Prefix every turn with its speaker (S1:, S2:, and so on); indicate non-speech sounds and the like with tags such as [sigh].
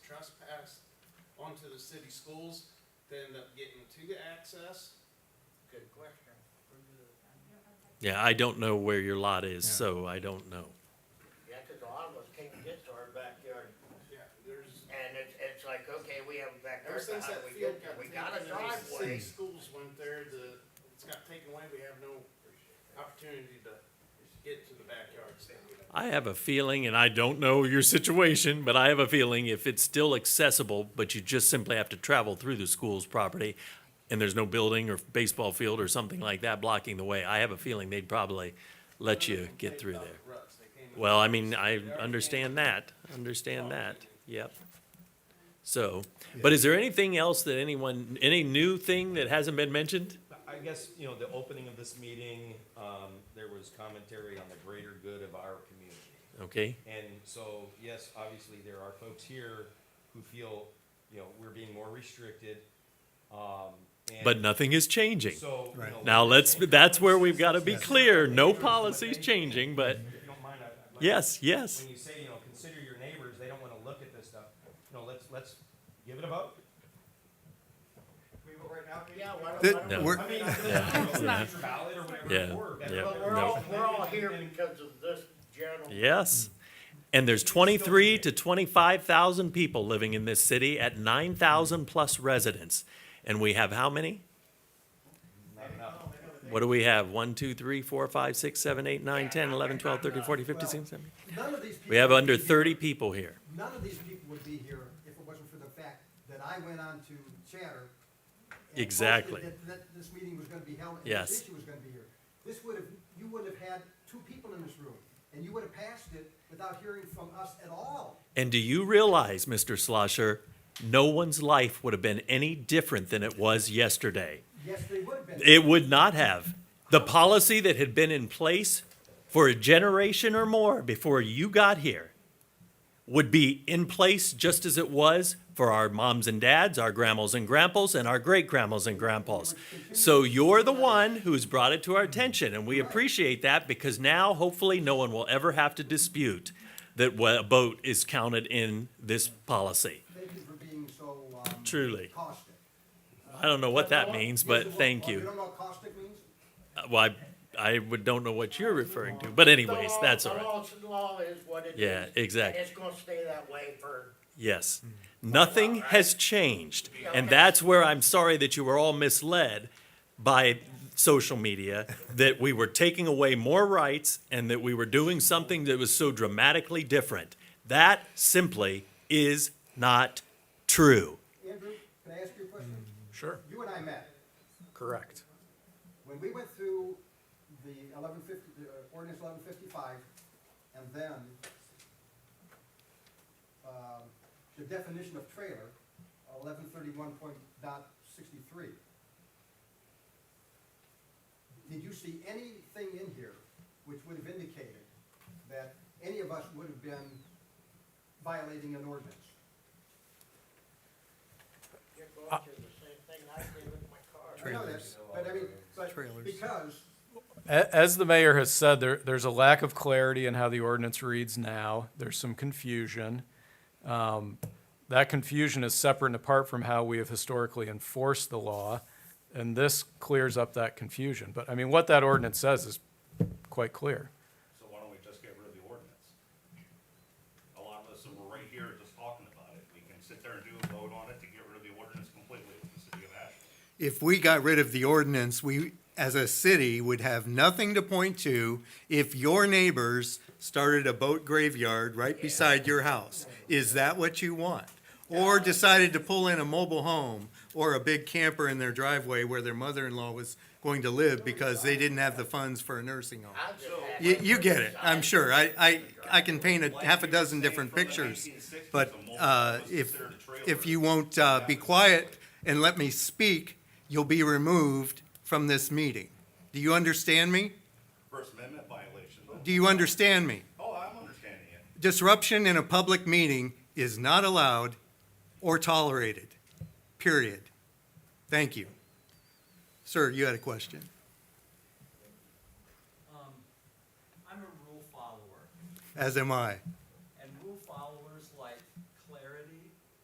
S1: belong to the city schools, they end up getting to the access.
S2: Good question.
S3: Yeah, I don't know where your lot is,
S4: Yeah.
S3: so I don't know.
S2: Yeah, 'cause a lot of us can't get to our backyard,
S1: Yeah, there's,
S2: and it's, it's like, okay, we have a
S1: ever
S2: backyard, but
S1: since
S2: how
S1: that
S2: do we
S1: field
S2: get, there?
S1: got
S2: we
S1: taken,
S2: got a
S1: and the city
S2: driveway.
S1: schools went there, the, it's got taken away, we have no opportunity to get to the backyards now.
S3: I have a feeling, and I don't know your [laughs] situation, but I have a feeling if it's still accessible, but you just simply have to travel through the school's property and there's no building or baseball field or something like that blocking the way, I have a feeling they'd probably let you get through there.
S1: Ruts, they came in-
S3: Well, I mean, I understand that, understand that, yep. So, but is there anything else that anyone, any new thing that hasn't been mentioned?
S5: I guess, you know, the opening of this meeting, um, there was commentary on the greater good of our community.
S3: Okay,
S5: And so, yes, obviously, there are folks here who feel, you know, we're being more restricted, um, and.
S3: but nothing is changing.
S5: So, you
S4: Right.
S5: know.
S3: Now, let's, that's where we've got to be
S4: Yes.
S3: clear, no policies changing, but
S5: If you don't mind, I'd- I'd like-
S3: yes, yes,
S5: When you say, you know, consider your neighbors, they don't wanna look at this stuff, you know, let's, let's give it a vote.
S2: Yeah, why don't-
S4: Th-
S2: why don't-
S4: we're-
S5: I mean,
S3: That's not-
S5: valid or whatever,
S3: Yeah,
S5: or that-
S3: yeah,
S2: But we're
S3: no.
S2: all, we're all here because of this general.
S3: yes. And there's twenty-three to twenty-five thousand people living in this city at nine thousand plus residents. And we have how many?
S5: Not enough.
S3: What do we have? One, two, three, four, five, six, seven, eight, nine, ten, eleven, twelve, thirteen, fourteen, fifteen, sixteen, seventeen?
S6: None of these people.
S3: We have
S6: would
S3: under
S6: be here-
S3: thirty people here.
S6: None of these people would be here if it wasn't for the fact that I went on to Chatter. and posted
S3: Exactly.
S6: That, that this meeting was gonna be held. and
S3: Yes.
S6: This issue was gonna be here. This would have, you would have had two people in this room, and you would have passed it without hearing from us at all.
S3: And do you realize, Mr. Slosher, no one's life would have been any different than it was yesterday?
S6: Yes, they would have been.
S3: It would not have. The policy that had been in place for a generation or more before you got here would be in place just as it was for our moms and dads, our grandmas and grandpas, and our great grandmas and grandpas. So you're the one who's brought it to our attention, and we appreciate that because now hopefully no one will ever have to dispute that what a boat is counted in this policy.
S6: Thank you for being so, um.
S3: Truly.
S6: Caustic.
S3: I don't know what that means, but
S6: Yes,
S3: thank
S6: well, You
S3: you.
S6: don't know what caustic means?
S3: Uh, Well, I, I would, don't know what you're referring to, but anyways,
S2: The law-
S3: that's all right.
S2: The law, the law is what it is.
S3: Yeah, exactly.
S2: And it's gonna stay that way for,
S3: Yes. Nothing
S2: Right.
S3: has changed. And
S2: Okay.
S3: that's where I'm sorry that you were all misled by social media, that we were taking away more rights and that we were doing something that was so dramatically different. That simply is not true.
S6: Andrew, can I ask you a question?
S7: Sure,
S6: You and I met.
S7: correct.
S6: When we went through the eleven fifty, the uh, ordinance eleven fifty-five, and then, um, the definition of trailer, eleven thirty-one point dot sixty-three, did you see anything in here which would have indicated that any of us would have been violating an ordinance?
S2: you're going through the same thing I did with my car.
S6: I know that's, but I mean, but because
S7: As the mayor has said, there, there's a lack of clarity in how the ordinance reads now. There's some confusion. Um, That confusion is separate and apart from how we have historically enforced the law, and this clears up that confusion. But, I mean, what that ordinance says is quite clear.
S8: So why don't we just get rid of the ordinance? A lot of us that were right here just talking about it, we can sit there and do a vote on it to get rid of the ordinance completely with the city of Ashland.
S9: if we got rid of the ordinance, we, as a city, would have nothing to point to if your neighbors started a boat graveyard right beside your house. Is that what you want? Or decided to pull in a mobile home or a big camper in their driveway where their mother-in-law was going to live because they didn't have the funds for a nursing home.
S2: I'm just happy
S9: You, you get it, I'm
S2: for
S9: sure. I, I, I can paint a half a dozen different pictures. But uh, if, if you won't uh, be quiet and let me speak, you'll be removed from this meeting. Do you understand me?
S8: First Amendment violation.
S9: Do you understand me?
S8: Oh, I'm understanding it.
S9: Disruption in a public meeting is not allowed or tolerated, period. Thank you. Sir, you had a question?
S10: Um, I'm a rule follower.
S9: As am I.